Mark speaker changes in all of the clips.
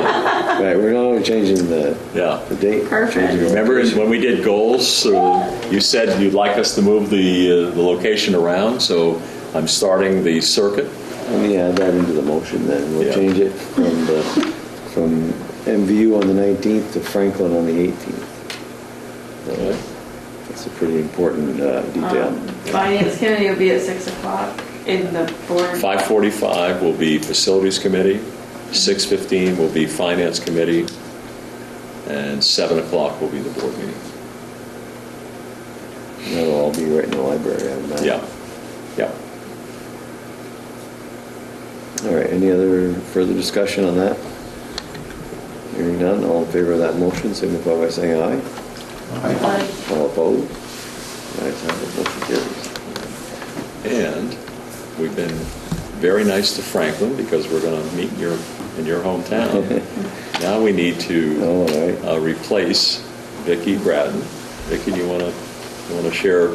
Speaker 1: Right, we're not only changing the,
Speaker 2: Yeah.
Speaker 1: the date.
Speaker 3: Perfect.
Speaker 2: Remember in- when we did goals, uh, you said you'd like us to move the, uh, the location around, so I'm starting the circuit.
Speaker 1: Let me add that into the motion then. We'll
Speaker 2: Yeah.
Speaker 1: change it from the, from MVU on the 19th to Franklin on the 18th. So That's a pretty important uh,
Speaker 3: Um,
Speaker 1: detail.
Speaker 3: Finance committee will be at 6 o'clock in the board.
Speaker 2: 5:45 will be Facilities Committee, 6:15 will be Finance Committee, and 7 o'clock will be the board meeting.
Speaker 1: That'll all be right in the library, I imagine.
Speaker 2: Yeah, yeah.
Speaker 1: All right, any other further discussion on that? Hearing none, all in favor of that motion, signify by saying aye.
Speaker 3: Aye.
Speaker 1: All opposed? Ayes have it, motion carries.
Speaker 2: And we've been very nice to Franklin because we're going to meet in your, in your hometown. Now we need to
Speaker 1: All right.
Speaker 2: uh, replace Vicki Braden. Vicki, do you want to, you want to share? Um,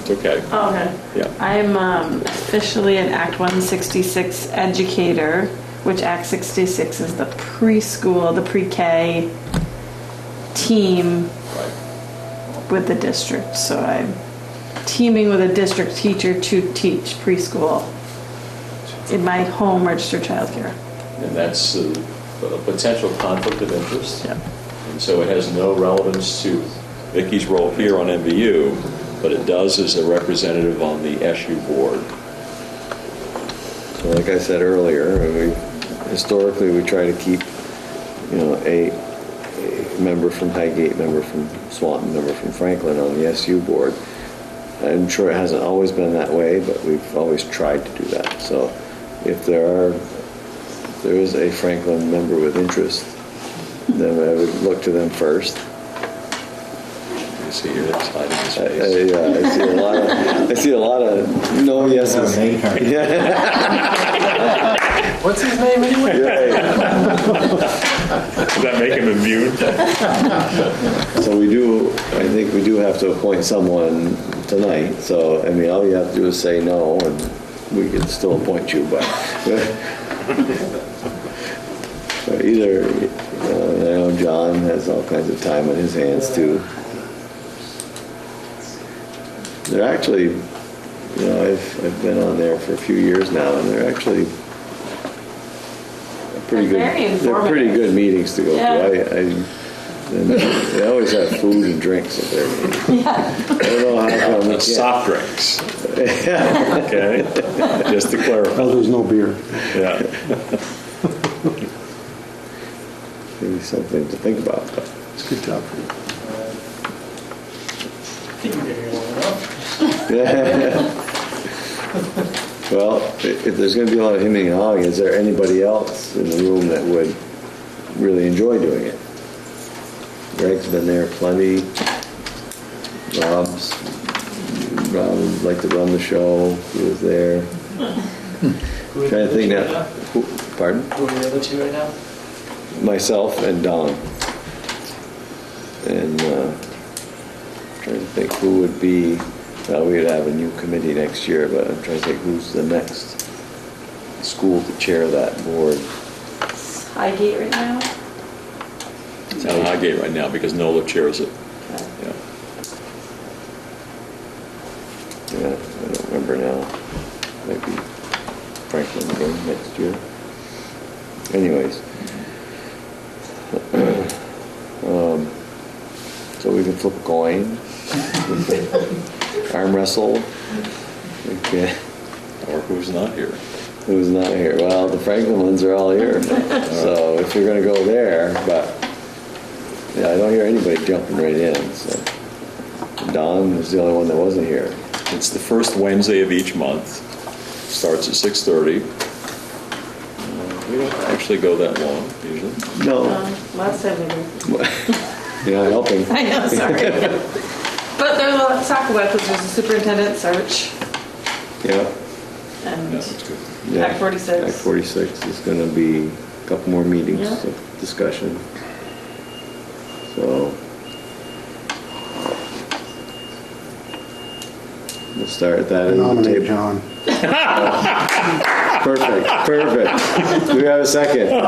Speaker 2: It's okay.
Speaker 3: Oh, Okay.
Speaker 2: Yeah.
Speaker 3: I'm um, officially an Act 166 educator, which Act 66 is the preschool, the pre-K team
Speaker 2: Right.
Speaker 3: with the district. So I'm teaming with a district teacher to teach preschool in my home registered childcare.
Speaker 2: And that's uh, a potential conflict of interest.
Speaker 3: Yep.
Speaker 2: And so it has no relevance to Vicky's role here on MVU, but it does as a representative on the SU board.
Speaker 1: So like I said earlier, we, historically, we try to keep, you know, a, a member from Highgate, member from Swanton, member from Franklin on the SU board. I'm sure it hasn't always been that way, but we've always tried to do that. So if there are, if there is a Franklin member with interest, then I would look to them first.
Speaker 2: You see here, it's hiding his
Speaker 1: I, I,
Speaker 2: face.
Speaker 1: uh, I see a lot of, I see a lot of no yeses.
Speaker 4: What's his name anyway?
Speaker 1: Yeah.
Speaker 2: Does that make him immune?
Speaker 1: So we do, I think we do have to appoint someone tonight, so, I mean, all you have to do is say no, and we can still appoint you, but. But Either, uh, I know John has all kinds of time on his hands too. They're actually, you know, I've, I've been on there for a few years now, and they're actually a pretty good.
Speaker 3: They're very
Speaker 1: They're pretty
Speaker 3: informative.
Speaker 1: good meetings to go to.
Speaker 3: Yeah.
Speaker 1: I, I, and they always have food and drinks at their meetings. I don't know how come we can't.
Speaker 2: Soft drinks. Okay, just to clarify,
Speaker 5: Oh, there's no beer.
Speaker 2: yeah.
Speaker 1: Maybe something to think about. but-
Speaker 5: It's a good job for you.
Speaker 1: Well, i- if there's going to be a lot of hemming and hawing, is there anybody else in the room that would really enjoy doing it? Greg's been there plenty. Rob's, Rob would like to run the show, he was there. Trying to think now, who- pardon?
Speaker 4: Who are the other two right now?
Speaker 1: myself and Don. And uh, trying to think who would be, well, we'd have a new committee next year, but I'm trying to think who's the next school to chair that board.
Speaker 3: Highgate right now?
Speaker 2: It's on Highgate right now because Nola chairs it. Yeah.
Speaker 1: Yeah, I don't remember now. Maybe Franklin again next year. Anyways. Um, So we can flip a coin, arm wrestle. Okay.
Speaker 2: Or who's not here?
Speaker 1: Who's not here? Well, the Franklin ones are all here. So if you're gonna go there, but, yeah, I don't hear anybody jumping right in, so. Don was the only one that wasn't here.
Speaker 2: It's the first Wednesday of each month, starts at 6:30. Uh, We don't actually go that long usually.
Speaker 1: No.
Speaker 3: Um, Last time we were.
Speaker 1: You're not helping.
Speaker 3: I know, sorry. But there's a lot to talk about because there's a superintendent search
Speaker 1: Yeah.
Speaker 3: and
Speaker 2: Yeah, that's good.
Speaker 1: yeah.
Speaker 3: Act 46.
Speaker 1: Act 46 is going to be a couple more meetings
Speaker 3: Yeah.
Speaker 1: of discussion. So. We'll start at that. end of the
Speaker 5: Nominate
Speaker 1: table.
Speaker 5: John.
Speaker 1: Perfect, perfect. Do we have a second?